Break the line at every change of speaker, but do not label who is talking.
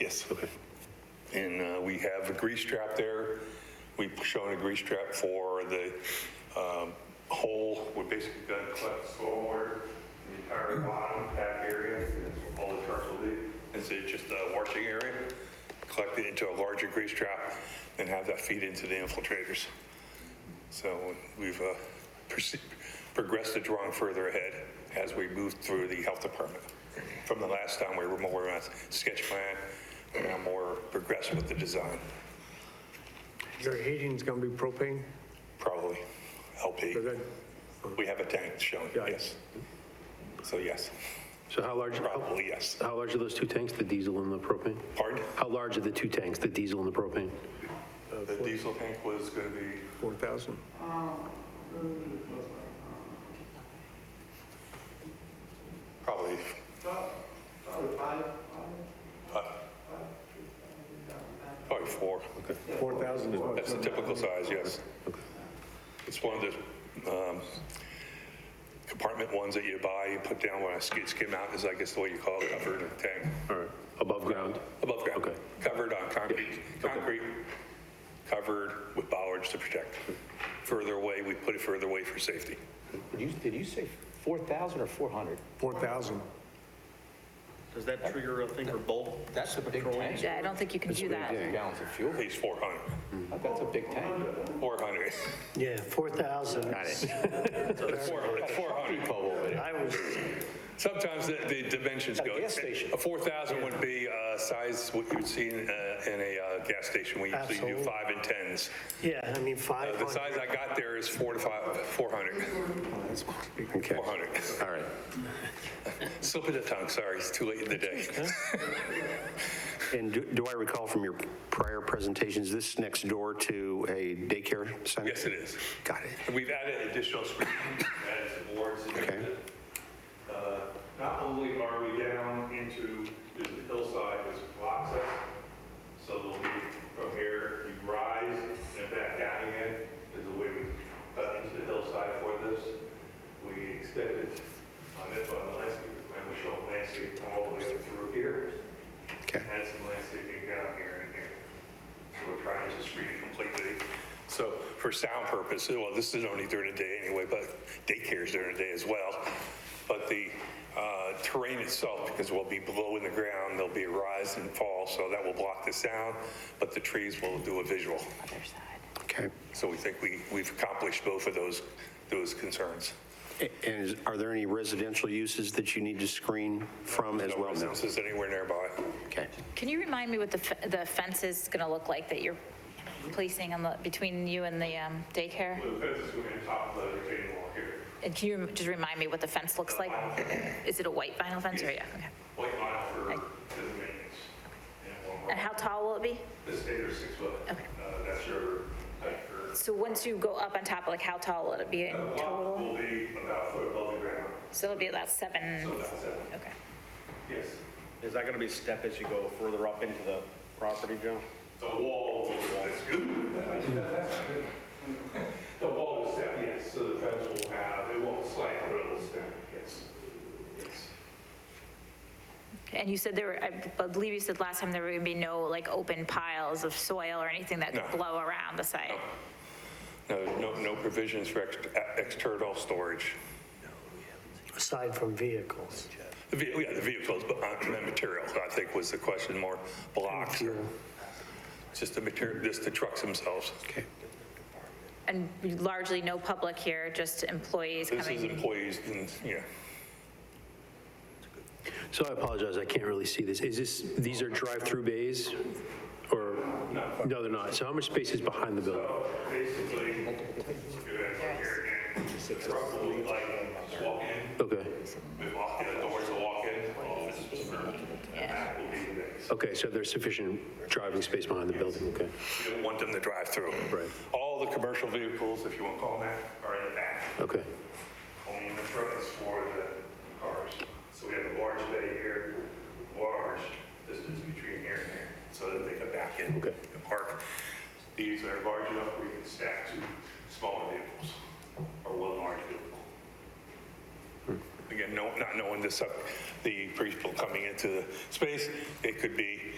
Yes, okay. And uh, we have a grease trap there. We've shown a grease trap for the um, hole, we're basically going to collect stormwater, the entire bottom back area, that's all the trucks will do. It's a- just a washing area, collect it into a larger grease trap, and have that feed into the infiltrators. So we've uh, proce- progressed the drawing further ahead as we move through the health department. From the last time, we were more on sketch plan, we're now more progressive with the design,
Your heating's gonna be propane?
probably LP.
Is that-
We have a tank shown,
Yeah.
yes. So yes,
So how large, how
probably yes.
how large are those two tanks, the diesel and the propane?
Pardon?
How large are the two tanks, the diesel and the propane?
The diesel tank was going to be
4,000?
probably. Five. Probably four.
4,000 is
That's the
what?
typical size, yes. It's one of the um, compartment ones that you buy, you put down when a skid skim out, is I guess the way you call it, covered in tank,
All right, above ground?
above ground,
Okay.
covered on concrete, concrete, covered with bollards to protect. Further away, we put it further away for safety.
Did you, did you say 4,000 or 400?
4,000.
Does that trigger a thing for both?
That's a big tank.
Yeah, I don't think you can do that.
Gallons of fuel.
Pays 400,
That's a big tank.
400.
Yeah, 4,000. Got it.
It's 400, it's 400.
I was,
Sometimes the, the dimensions
At a
go.
gas station.
A 4,000 would be uh, size what you would see in, uh, in a uh, gas station. We usually do
Absolutely.
five and 10s.
yeah, I mean,
Uh, The
500.
size I got there is four to five, 400,
Okay,
400.
all right.
Slip of the tongue, sorry, it's too late in the day.
And do- do I recall from your prior presentations, this next door to a daycare center?
Yes, it is.
Got it.
And We've added additional screening, added some boards.
Okay.
Uh, Not only are we down into the hillside, there's blocks up, so there'll be from here, you rise and back down again, is a way we cut into the hillside for this. We extended on this on the landscape, and we show landscape all the way up through here.
Okay.
Had some landscaping down here and here. So we're trying to just read it completely. So for sound purposes, well, this is only during the day anyway, but daycare's during the day as well. But the uh, terrain itself, because we'll be below in the ground, there'll be a rise and fall, so that will block the sound, but the trees will do a visual.
Okay.
So we think we, we've accomplished both of those, those concerns.
A- And is- are there any residential uses that you need to screen from as
No
well now?
residences anywhere nearby.
Okay.
Can you remind me what the, fe- the fence is going to look like that you're placing on the, between you and the um, daycare?
The fence is going to top the retaining wall here.
And can you just remind me what the fence looks like? Is it a white vinyl fence or, yeah, okay.
White vinyl for
Like-
the maintenance. And one more.
And how tall will it be?
This eight or six foot.
Okay.
Uh, That's your height for.
So once you go up on top, like how tall will it be in
Lot
total?
Will be about a foot above the ground,
So it'll be about seven,
so about seven,
okay.
yes.
Is that gonna be step as you go further up into the property, Joe?
The wall, that's good. The wall will step, yes, so the fence will have, it won't slant, but it'll step, yes. Yes.
And you said there were, I believe you said last time there were going to be no like open piles of soil or anything that could
No.
blow around the site?
No, no, no provisions for ex- uh, external storage.
Aside from vehicles.
The ve- Yeah, the vehicles, but uh, the material, I think was the question, more blocks or just the material, just the trucks themselves.
And largely no public here, just employees
This is
coming?
employees and, yeah.
So I apologize, I can't really see this. Is this, these are drive-through bays? Or, no, they're not. So how much space is behind the building?
Basically, probably like walk in,
Okay,
we walk in, the doors will walk in, office is for, that will be the next.
okay, so there's sufficient driving space behind the building, okay.
We don't want them to drive through.
Right.
All the commercial vehicles, if you want to call them that, are in the back.
Okay,
Only in the front is for the cars. So we have a large bay here, large distance between here and there, so that they can back in
Okay.
and park. These are large enough where you can stack two smaller vehicles or one large vehicle.
Hmm.
Again, no, not knowing this, uh, the people coming into the space, it could be